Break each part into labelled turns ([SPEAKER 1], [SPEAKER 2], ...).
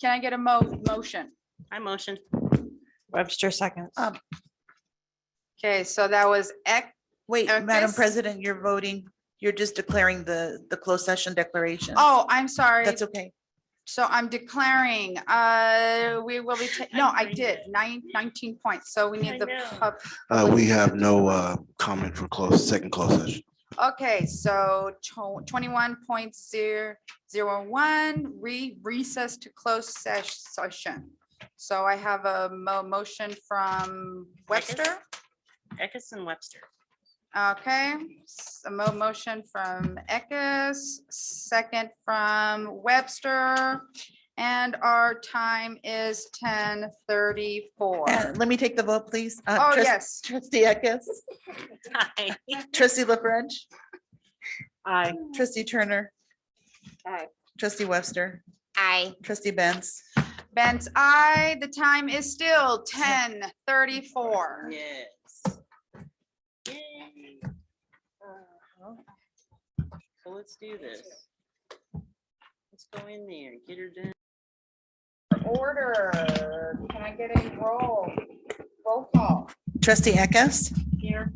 [SPEAKER 1] Can I get a mo- motion?
[SPEAKER 2] I motion.
[SPEAKER 3] Webster seconds.
[SPEAKER 4] Uh,
[SPEAKER 1] Okay, so that was X,
[SPEAKER 4] Wait,
[SPEAKER 1] Okay,
[SPEAKER 4] Madam
[SPEAKER 1] s-
[SPEAKER 4] President, you're voting, you're just declaring the, the closed session declaration.
[SPEAKER 1] oh, I'm sorry.
[SPEAKER 4] That's okay.
[SPEAKER 1] So I'm declaring, uh, we will be, ta- no, I
[SPEAKER 2] agree.
[SPEAKER 1] did, nine, nineteen points, so we
[SPEAKER 2] I
[SPEAKER 1] need the,
[SPEAKER 2] know.
[SPEAKER 1] pub-
[SPEAKER 5] Uh, we have no, uh, comment for close, second closed session.
[SPEAKER 1] okay, so twenty-one point zero, zero one, re, recess to close sesh- session. So I have a mo- motion from Webster,
[SPEAKER 2] Eckes and Webster.
[SPEAKER 1] okay, s- a mo- motion from Eckes, second from Webster, and our time is ten thirty-four.
[SPEAKER 4] And let me take the vote, please. Uh,
[SPEAKER 1] Oh,
[SPEAKER 4] trust-
[SPEAKER 1] yes.
[SPEAKER 4] Trustee Eckes,
[SPEAKER 2] Aye.
[SPEAKER 4] trustee La French,
[SPEAKER 2] Aye.
[SPEAKER 4] trustee Turner.
[SPEAKER 1] Aye.
[SPEAKER 4] Trustee Webster,
[SPEAKER 6] Aye.
[SPEAKER 4] trustee Benz.
[SPEAKER 1] Ben's I. The time is still ten thirty-four.
[SPEAKER 2] Yes. Yay. Uh-huh. So let's do this. Let's go in there, and get her done.
[SPEAKER 1] Order. Can I get a roll? Roll call.
[SPEAKER 4] Trustee Eckes.
[SPEAKER 2] Here.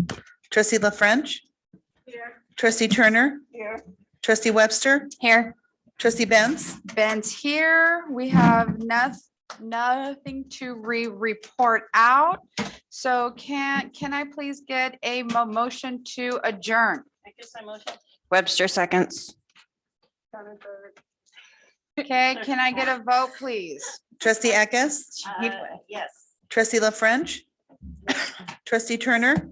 [SPEAKER 4] Trustee La French.
[SPEAKER 1] Here.
[SPEAKER 4] Trustee Turner.
[SPEAKER 1] Here.
[SPEAKER 4] Trustee Webster,
[SPEAKER 6] Here.
[SPEAKER 4] trustee Benz.
[SPEAKER 1] Ben's here. We have nothing, nothing to re-report out. So can, can I please get a mo- motion to adjourn?
[SPEAKER 2] I guess I motion.
[SPEAKER 3] Webster seconds.
[SPEAKER 1] Okay, can I get a vote, please?
[SPEAKER 4] Trustee Eckes,
[SPEAKER 2] Uh, Yes.
[SPEAKER 4] trustee La French. Trustee Turner,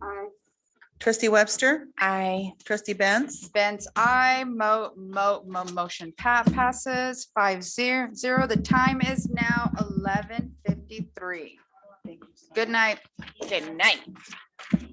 [SPEAKER 4] trustee Webster,
[SPEAKER 3] Aye.
[SPEAKER 4] trustee Benz.
[SPEAKER 1] Ben's I. Mo, mo, mo, motion pa- passes five zero zero. The time is now eleven fifty-three. Good night.
[SPEAKER 6] Good night.